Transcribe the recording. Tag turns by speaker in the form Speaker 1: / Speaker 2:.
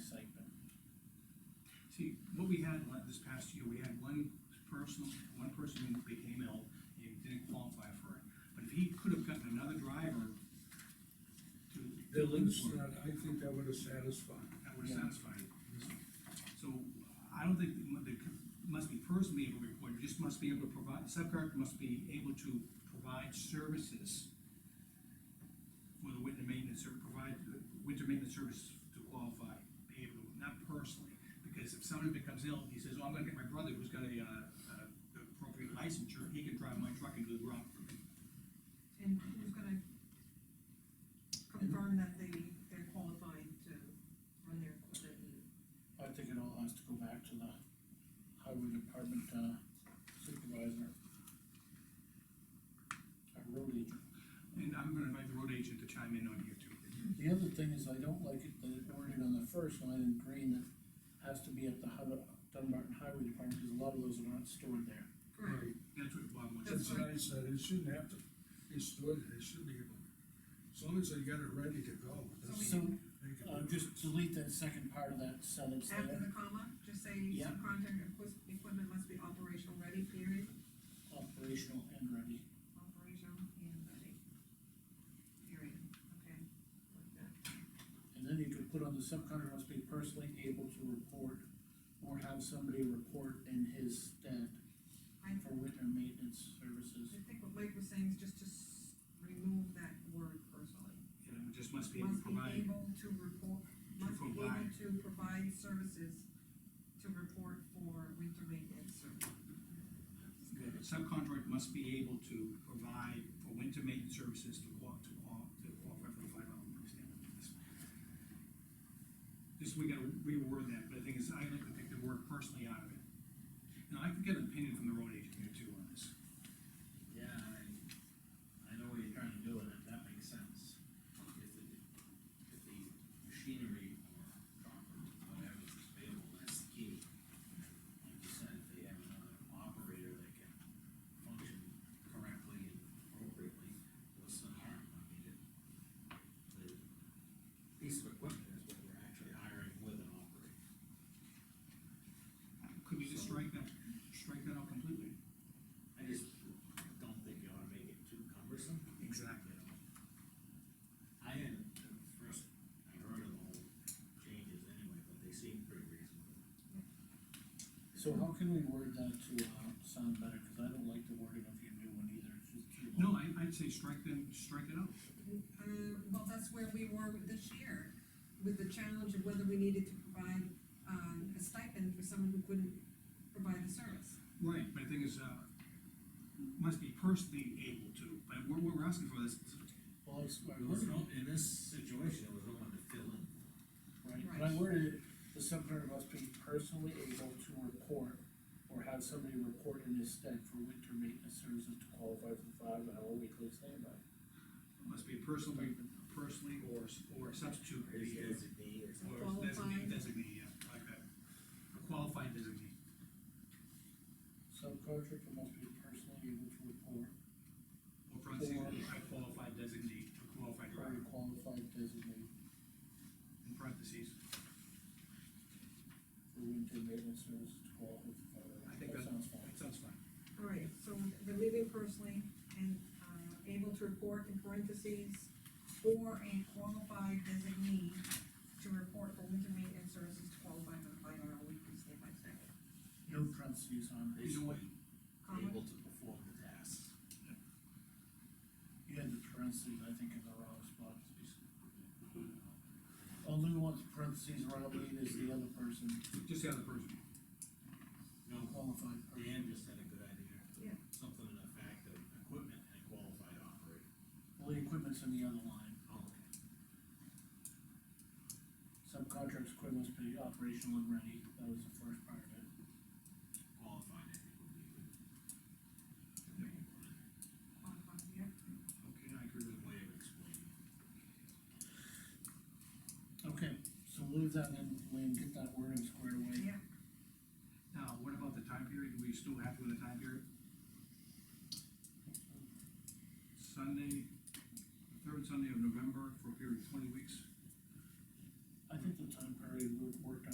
Speaker 1: we had, like, this past year, we had one person, one person who became ill and didn't qualify for it. But if he could have gotten another driver to.
Speaker 2: The links, that, I think that would have satisfied.
Speaker 1: That would have satisfied. So I don't think, mu- they could- must be personally able to report, you just must be able to provide, subcontractor must be able to provide services for the winter maintenance, or provide the winter maintenance service to qualify, be able, to, not personally. Because if somebody becomes ill, he says, oh, I'm gonna get my brother who's got a, uh, uh, the appropriate licensure, he can drive my truck and do the route for me.
Speaker 3: And who's gonna confirm that they, they're qualified to run their equipment?
Speaker 4: I think it all has to go back to the highway department uh, supervisor. Our road agent.
Speaker 1: And I'm gonna invite the road agent to chime in on here too.
Speaker 4: The other thing is, I don't like it, that it worded on the first line in green, that has to be at the Hub- Dunbarton Highway Department, because a lot of those are not stored there.
Speaker 3: Correct.
Speaker 1: That's what Bob wants.
Speaker 2: That's what I said, it shouldn't have to be stored, they should be able, as long as they got it ready to go. that's-
Speaker 4: So,
Speaker 2: they can
Speaker 4: uh,
Speaker 2: do it.
Speaker 4: just delete that second part of that sentence
Speaker 3: After
Speaker 4: there,
Speaker 3: the comma, just say
Speaker 4: Yeah.
Speaker 3: subcontractor equip- equipment must be operational ready, period,
Speaker 4: operational and ready.
Speaker 3: operational and ready. Period, okay. Like that.
Speaker 4: And then you could put on the subcontractor must be personally able to report or have somebody report in his stead
Speaker 3: I-
Speaker 4: for winter maintenance services.
Speaker 3: I think what Mike was saying is just to s- remove that word personally.
Speaker 1: You know, just must be able to
Speaker 3: Must be
Speaker 1: provide.
Speaker 3: able to report, must be able
Speaker 1: provide.
Speaker 3: to provide services to report for winter maintenance service.
Speaker 1: The subcontract must be able to provide for winter maintenance services to qual, to qual, to qualify for the five dollar per standard. Just, we gotta reword that, but the thing is, I like to take the word personally out of it. And I could get an opinion from the road agent here too on this.
Speaker 5: Yeah, I, I know what you're trying to do, and if that makes sense. If the, if the machinery or property, whatever is available, that's the key. Like you said, if they have another operator that can function correctly and appropriately, what's the harm? I mean, it, the piece of equipment is what we're actually hiring with an operator.
Speaker 1: Could we just strike that, strike that out completely?
Speaker 5: I just don't think you ought to make it too cumbersome.
Speaker 1: Exactly.
Speaker 5: I hadn't, at first, I heard of the whole changes anyway, but they seemed pretty reasonable.
Speaker 4: So how can we word that to, uh, sound better, cause I don't like the wording of your new one either, it's just too long.
Speaker 1: No, I, I'd say strike them, strike it out.
Speaker 3: Uh, well, that's where we were with this year, with the challenge of whether we needed to provide, um, a stipend for someone who couldn't provide the service.
Speaker 1: Right, but the thing is, uh, must be personally able to, but what, what we're asking for is,
Speaker 4: Well, it's, I
Speaker 5: There was
Speaker 4: worded it,
Speaker 5: no, in this situation, there was no one to fill in.
Speaker 4: right, but I
Speaker 3: Right.
Speaker 4: worded it, the subcontractor must be personally able to report or have somebody report in his stead for winter maintenance services to qualify for the five hour weekly standby.
Speaker 1: must be personally, personally or, or substitute.
Speaker 5: His
Speaker 1: the, uh,
Speaker 5: designee or something.
Speaker 1: Or
Speaker 3: Qualified.
Speaker 1: designate, designate, yeah, like that. A qualified designate.
Speaker 4: Subcontractor must be personally able to report
Speaker 1: Or parentheses, a qualified designate, a qualified
Speaker 4: or
Speaker 1: driver,
Speaker 4: qualified designate
Speaker 1: in parentheses.
Speaker 4: for winter maintenance services to qualify for five hour.
Speaker 1: I think that,
Speaker 4: sounds fine.
Speaker 1: that sounds fine.
Speaker 3: All right, so removing personally and, uh, able to report in parentheses, or a qualified designee to report for winter maintenance services to qualify for the five-hour weekly standby stipend.
Speaker 4: No parentheses on it.
Speaker 1: Either way,
Speaker 3: Comma?
Speaker 5: Able to perform the tasks.
Speaker 4: You had the parentheses, I think, in the wrong spot. Only one parentheses around me is the other person,
Speaker 1: just the other person.
Speaker 5: No,
Speaker 4: qualified person.
Speaker 5: Dan just had a good idea.
Speaker 3: Yeah.
Speaker 5: Something in the fact of equipment and a qualified operator.
Speaker 4: Well, the equipment's in the other line.
Speaker 5: Oh, okay.
Speaker 4: Subcontractors' equipment must be operational and ready. That was the first part of it.
Speaker 5: Qualified, I think would be good.
Speaker 3: Qualified, yeah.
Speaker 1: Okay, I agree
Speaker 5: Good
Speaker 1: with
Speaker 5: way of explaining. it.
Speaker 4: Okay, so leave that in, Lean, get that wording squared away.
Speaker 3: Yeah,
Speaker 1: that. Now, what about the time period? Were you still happy with the time period? Sunday, the third Sunday of November for a period of twenty weeks.